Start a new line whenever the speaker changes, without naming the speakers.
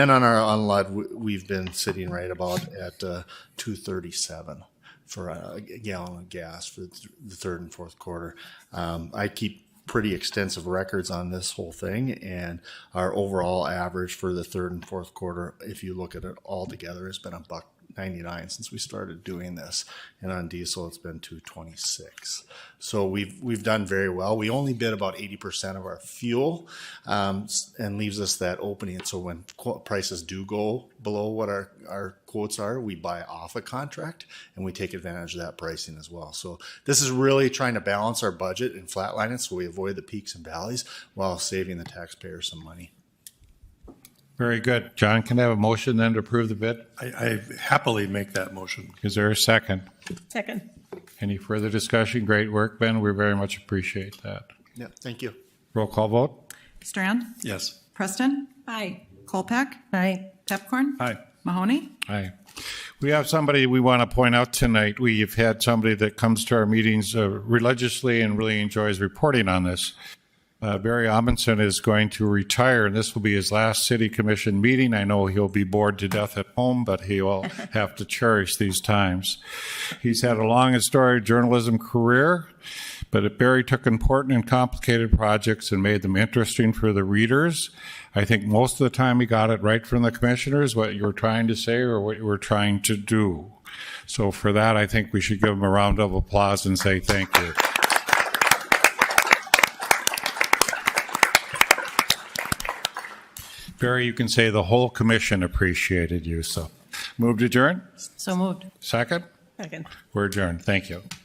And on our unload, we- we've been sitting right about at uh, 237 for a gallon of gas for th- the third and fourth quarter. Um, I keep pretty extensive records on this whole thing, and our overall average for the third and fourth quarter, if you look at it all together, has been a buck 99 since we started doing this, and on diesel, it's been 226. So we've we've done very well. We only bid about 80% of our fuel, um, s- and leaves us that opening. So when qu- prices do go below what our our quotes are, we buy off a contract and we take advantage of that pricing as well. So this is really trying to balance our budget and flatline it so we avoid the peaks and valleys while saving the taxpayer some money.
Very good. John, can I have a motion then to approve the bid?
I, I happily make that motion.
Is there a second?
Second.
Any further discussion? Great work, Ben. We very much appreciate that.
Yeah, thank you.
Roll call vote?
Strand,
Yes.
Preston,
Aye.
Colpack,
Aye.
Pepcorn.
Aye.
Mahoney.
Aye. We have somebody we want to point out tonight. We've had somebody that comes to our meetings uh, religiously and really enjoys reporting on this. Uh, Barry Amundson is going to retire, and this will be his last city commission meeting. I know he'll be bored to death at home, but he will have to cherish these times. He's had a long and storied journalism career, but Barry took important and complicated projects and made them interesting for the readers. I think most of the time he got it right from the commissioners, what you were trying to say or what you were trying to do. So for that, I think we should give him a round of applause and say thank you. Barry, you can say the whole commission appreciated you, so. Move to adjourn?
So moved.
Second?
Second.
We're adjourned. Thank you.